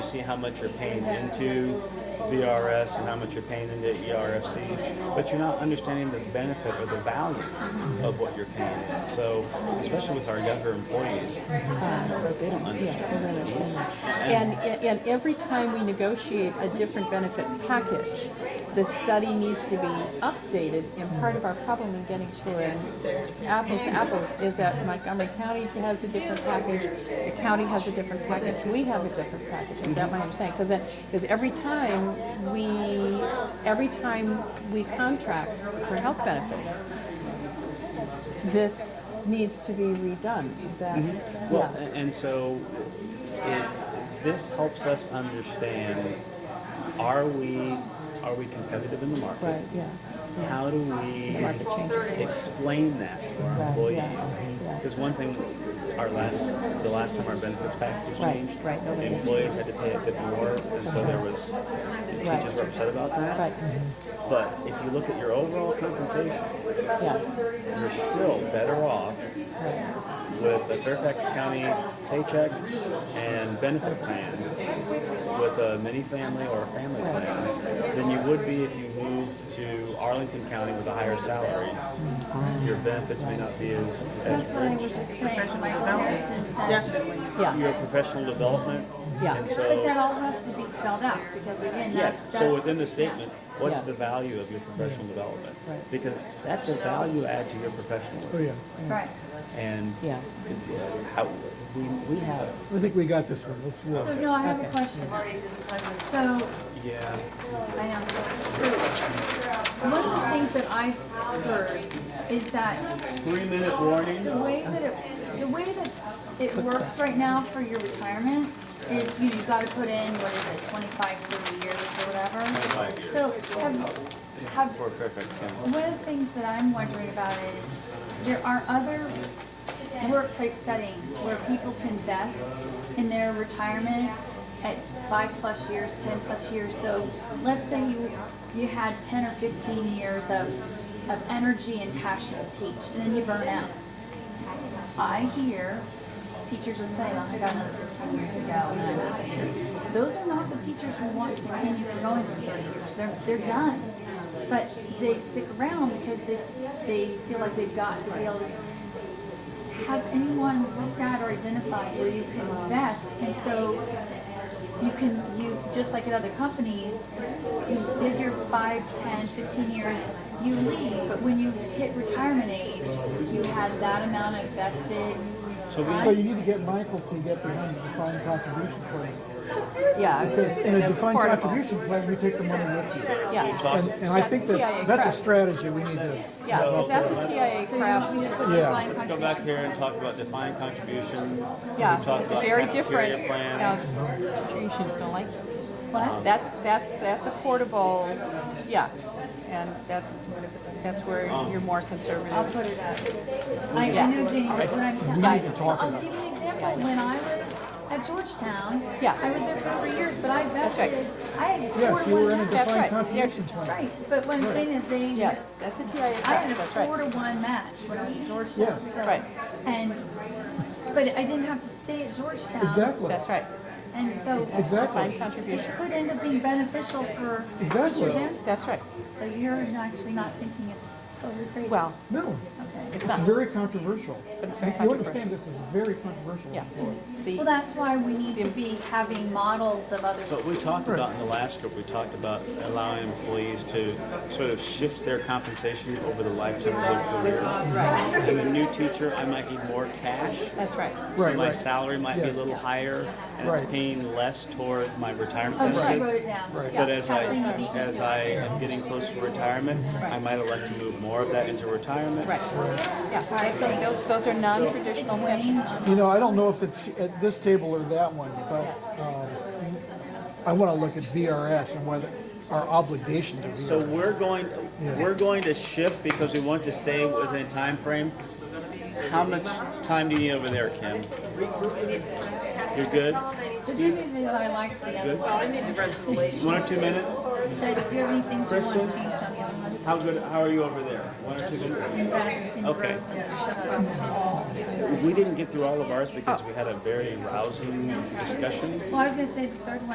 see how much you're paying into VRS and how much you're paying into E ERFC, but you're not understanding the benefit or the value of what you're paying in. So, especially with our younger employees, they don't understand this. And, and every time we negotiate a different benefit package, the study needs to be updated, and part of our problem in getting to an apples to apples is that Montgomery County has a different package, the county has a different package, we have a different package, is that what I'm saying? Because, because every time we, every time we contract for health benefits, this needs to be redone, is that? Well, yeah. a- and so it, this helps us understand, are we, are we competitive in the market? Right, yeah, How do we market changes. explain that to our Right, employees? yeah, yeah. Because one thing, our last, the last time our benefits package Right, changed, right, no, the they didn't. employees had to pay a bit more, and so there was, the Right. teachers were upset about that. Right. But if you look at your overall compensation, yeah, you're still better off right. with a Fairfax County paycheck and benefit plan with a mini family or a family plan than you would be if you moved to Arlington County with a higher salary. Your benefits may not be as, as That's what I rich. was just saying. Like, there's this session. Definitely. Yeah, Your professional development, Yeah. and But that so, all has to be spelled out, because again, that's, yes, that's. so within the statement, what's Yeah. the value of your professional development? Right. Because that's a value add to your Oh, professionalism. yeah. Right. And Yeah. it- uh, how, we, we have, I think we got this one. Let's roll. So, no, I have a question. So, yeah, I know. So, one of the things that I've heard is that three minute warning. the way that it, the way that it works right now for your retirement is, you know, you gotta put in, what is it, 25, 30 years or whatever? 25 years. So, have, have for Fairfax County. One of the things that I'm wondering about is there are other workplace settings where people can invest in their retirement at five plus years, ten plus years. So let's say you you had ten or fifteen years of of energy and passion to teach, and then you burn out. I hear teachers will say, "Oh, I got another fifteen years to go." and I'm out of here." Those are not the teachers who want to continue for going for thirty years. They're they're done, but they stick around because they they feel like they've got to be able. to Has anyone looked at or identified where you can invest, and so you can you just like at other companies, you did your five, ten, fifteen years, you leave, but when you hit retirement age, you have that amount of vested. So you need to get Michael to get behind the defined contribution plan. yeah, I was gonna Because say in a that's defined portable. contribution plan, we take the money with you. Yeah, And, and I think That's that's, TIA that's a crap. strategy we need to, yeah, 'cause that's uh, a TIA You craft. have a Yeah. defined Let's go contribution. back here and talk about defined contributions. Yeah, We talked it's about very cafeteria different. Now, Plans. institutions don't like this. What? That's, that's, that's a portable, yeah, and that's, that's where Uh-huh. you're more I'll conservative. put it up. I, Yeah. I know, Janie, what I'm telling need to I'll I'll give you an example. When I was at Georgetown, Yeah. I was there for three years, but I right. vested, I had yes, you four were to in a one. That's defined right. contribution plan. Right, but what I'm saying is they. Yes, that's a TIA I had craft, a that's four right. to one match when I was at Georgetown. Yes. so- Right. And, but I didn't have to stay at Georgetown. Exactly. That's right, And so. Exactly. defined contribution, It could end up being beneficial for Exactly. teachers and staff. that's right. So you're actually not thinking it's totally crazy. Well, No, Okay. it's it's not, very controversial. it's very You controversial. understand this is very controversial. Yeah. Well, The, that's why we need to be having models of other. But we talked about in the last group, we talked about allowing employees to sort of shift their compensation over the lifetime of their career. I'm a new teacher, I might need more cash, that's right, so Right, my right. salary might be a Yes. little higher, and it's Right. paying less toward my retirement Oh, she wrote benefits. it down. But as I, Kathleen, you beat me as to it. I am getting close to retirement, I might elect to move more of that into retirement. right. Yeah, and so those, those are non-traditional pensions. You know, I don't know if it's at this table or that one, but um, I want to look at VRS and whether our obligation to VRS. So we're going, we're going to shift because we want to stay within a time frame. How much time do you need over there, Kim? You're good? The good news is I liked the other one. One or two minutes? So do you have any things you want changed on the other one? How good, how are you over there? One or two minutes? Invest in Okay. growth and leadership opportunities. We didn't get through all of ours because we had a very rousing discussion. Well, I was gonna say the third one.